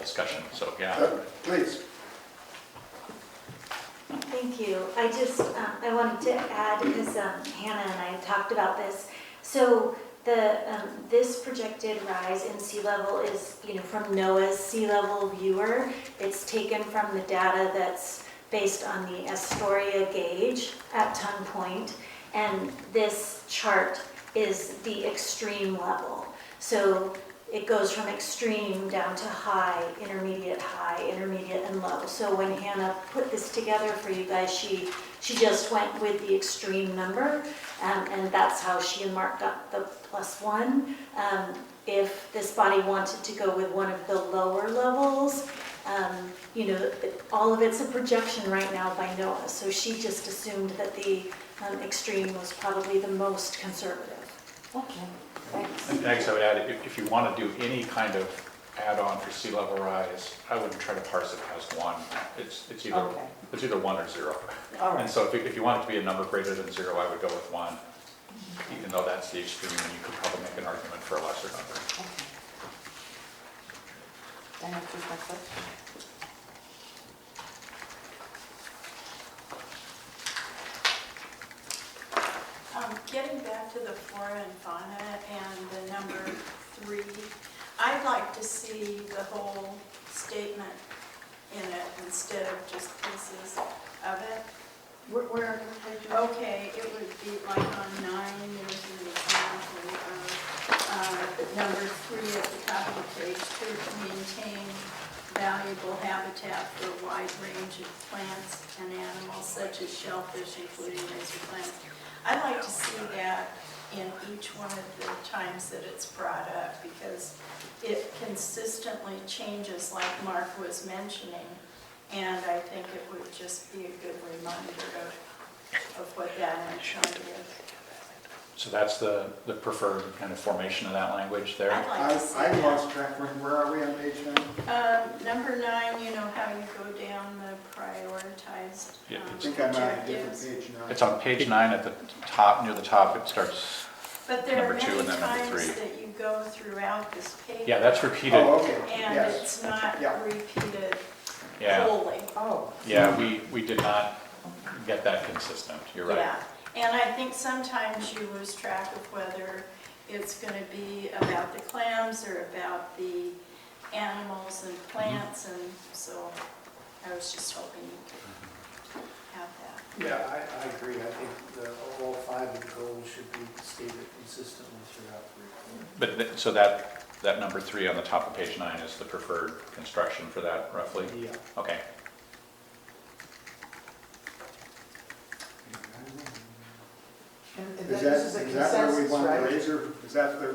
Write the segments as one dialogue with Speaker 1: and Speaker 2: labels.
Speaker 1: discussion, so, yeah.
Speaker 2: Uh, Please.
Speaker 3: Thank you. I just, uh, I wanted to add, because um, Hannah and I talked about this. So the, um, this projected rise in sea level is, you know, from NOAA's Sea Level Viewer. It's taken from the data that's based on the Astoria gauge at Ton Point. And this chart is the extreme level. So it goes from extreme down to high, intermediate, high, intermediate, and low. So when Hannah put this together for you guys, she, she just went with the extreme number, um, and that's how she and Mark got the plus one. Um, If this body wanted to go with one of the lower levels, um, you know, it- all of it's a projection right now by NOAA, so she just assumed that the um, extreme was probably the most conservative.
Speaker 4: Okay, thanks.
Speaker 1: And next, I would add, if, if you want to do any kind of add-on for sea level rise, I wouldn't try to parse it as one. It's, it's either,
Speaker 4: Okay.
Speaker 1: it's either one or zero.
Speaker 4: All
Speaker 1: And
Speaker 4: right,
Speaker 1: so if, you- if you want it to be a number greater than zero, I would go with one, even though that's the extreme, and you could probably make an argument for a lesser number.
Speaker 4: okay. Then I choose my question.
Speaker 5: Um, Getting back to the flora and fauna and the number three, I'd like to see the whole statement in it instead of just pieces of it.
Speaker 4: Where, where are the pages?
Speaker 5: Okay, it would be like on nine, there's an example of, uh, number three at the top of page two, to maintain valuable habitat for a wide range of plants and animals such as shellfish, including razor plants. I'd like to see that in each one of the times that it's brought up because it consistently changes like Mark was mentioning. And I think it would just be a good reminder of of what that actually is.
Speaker 1: So that's the, the preferred kind of formation of that language there?
Speaker 5: I'd like
Speaker 2: I
Speaker 5: to see
Speaker 2: I
Speaker 5: that.
Speaker 2: lost track, where where are we on page nine?
Speaker 5: Um, Number nine, you know how you go down the prioritized
Speaker 1: Yeah,
Speaker 5: um,
Speaker 2: I think I'm on a different
Speaker 5: objectives.
Speaker 2: page now.
Speaker 1: It's on page nine at the top, near the top, it starts,
Speaker 5: But there are
Speaker 1: number two
Speaker 5: many
Speaker 1: and then number
Speaker 5: times
Speaker 1: three.
Speaker 5: that you go throughout this paper.
Speaker 1: yeah, that's repeated.
Speaker 2: Oh, okay,
Speaker 5: And
Speaker 2: yes.
Speaker 5: it's not
Speaker 2: Yeah.
Speaker 5: repeated
Speaker 1: Yeah,
Speaker 5: wholly.
Speaker 4: Oh,
Speaker 1: yeah, we, we did not get that consistent, you're right.
Speaker 5: Yeah, and I think sometimes you lose track of whether it's gonna be about the clams or about the animals
Speaker 1: Mm-hmm.
Speaker 5: and plants, and so I was just hoping you could have that.
Speaker 6: Yeah, I, I agree. I think the, all five of the goals should be stated consistently throughout the report.
Speaker 1: But, th- so that, that number three on the top of page nine is the preferred construction for that roughly?
Speaker 6: Yeah.
Speaker 1: Okay,
Speaker 4: and and
Speaker 2: Is
Speaker 4: that-
Speaker 2: that,
Speaker 4: this is a
Speaker 2: is that where we
Speaker 4: consensus,
Speaker 2: want the
Speaker 4: right?
Speaker 2: razor, is that the,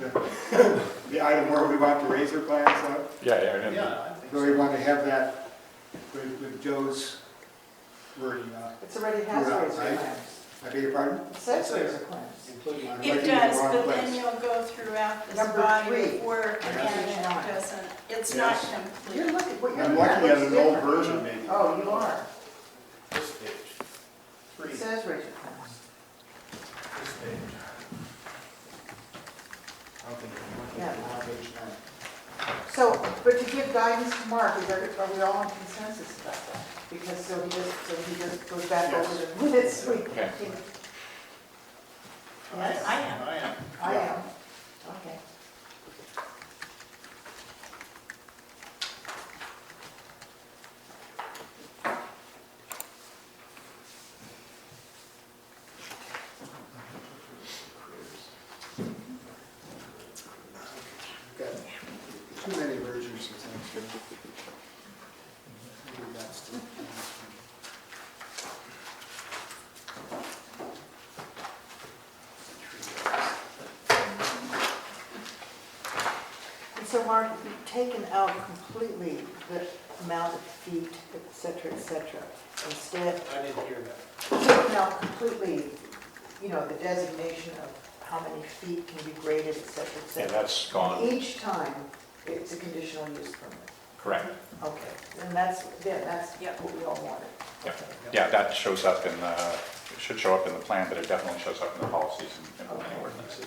Speaker 2: the- the item where we want the razor plans up?
Speaker 1: yeah, yeah, yeah,
Speaker 6: Yeah, I think
Speaker 2: Do we
Speaker 6: so.
Speaker 2: want to have that with with Joe's wording on? it?
Speaker 4: It's already has
Speaker 2: Yeah,
Speaker 4: razor
Speaker 2: right.
Speaker 4: clams.
Speaker 2: I beg your pardon?
Speaker 4: It says razor clams.
Speaker 6: Including on-
Speaker 2: Right
Speaker 5: It
Speaker 2: in the
Speaker 5: does,
Speaker 2: wrong
Speaker 5: but
Speaker 2: place.
Speaker 5: then you'll go throughout this
Speaker 4: Number
Speaker 5: body
Speaker 4: three.
Speaker 5: of work
Speaker 6: Yeah.
Speaker 5: and it
Speaker 4: Nine.
Speaker 5: doesn't, it's not
Speaker 2: Yes.
Speaker 4: You're
Speaker 5: complete.
Speaker 4: looking, what you're
Speaker 2: I'm
Speaker 4: looking at
Speaker 2: looking at
Speaker 4: looks
Speaker 2: an old
Speaker 4: different.
Speaker 2: version maybe.
Speaker 4: Oh, you are.
Speaker 6: this page. Three,
Speaker 4: It
Speaker 6: this
Speaker 4: says razor clams.
Speaker 6: page.
Speaker 2: I don't think I'm
Speaker 4: Yeah.
Speaker 2: looking at page nine.
Speaker 4: So, but to give guidance to Mark, is there, are we all in consensus about that? Because so he just, so he just goes back
Speaker 2: Yes.
Speaker 4: over the minutes we.
Speaker 1: Okay.
Speaker 4: Yes.
Speaker 5: I am.
Speaker 6: I am.
Speaker 4: I am, okay.
Speaker 2: We've got Too many versions of things here. Maybe that's the-
Speaker 4: And so, Mark, you've taken out completely the amount of feet, et cetera, et cetera. Instead,
Speaker 6: I didn't hear that.
Speaker 4: taken out completely, you know, the designation of how many feet can be graded, et cetera, et
Speaker 1: yeah,
Speaker 4: cetera.
Speaker 1: that's gone,
Speaker 4: Each time, it's a conditional use permit.
Speaker 1: correct.
Speaker 4: Okay, and that's, yeah, that's
Speaker 5: Yep.
Speaker 4: what we all wanted.
Speaker 1: Yep. Yeah, that shows up in the, it should show up in the plan, but it definitely shows up in the policies and- and
Speaker 4: Okay.
Speaker 1: ordinances.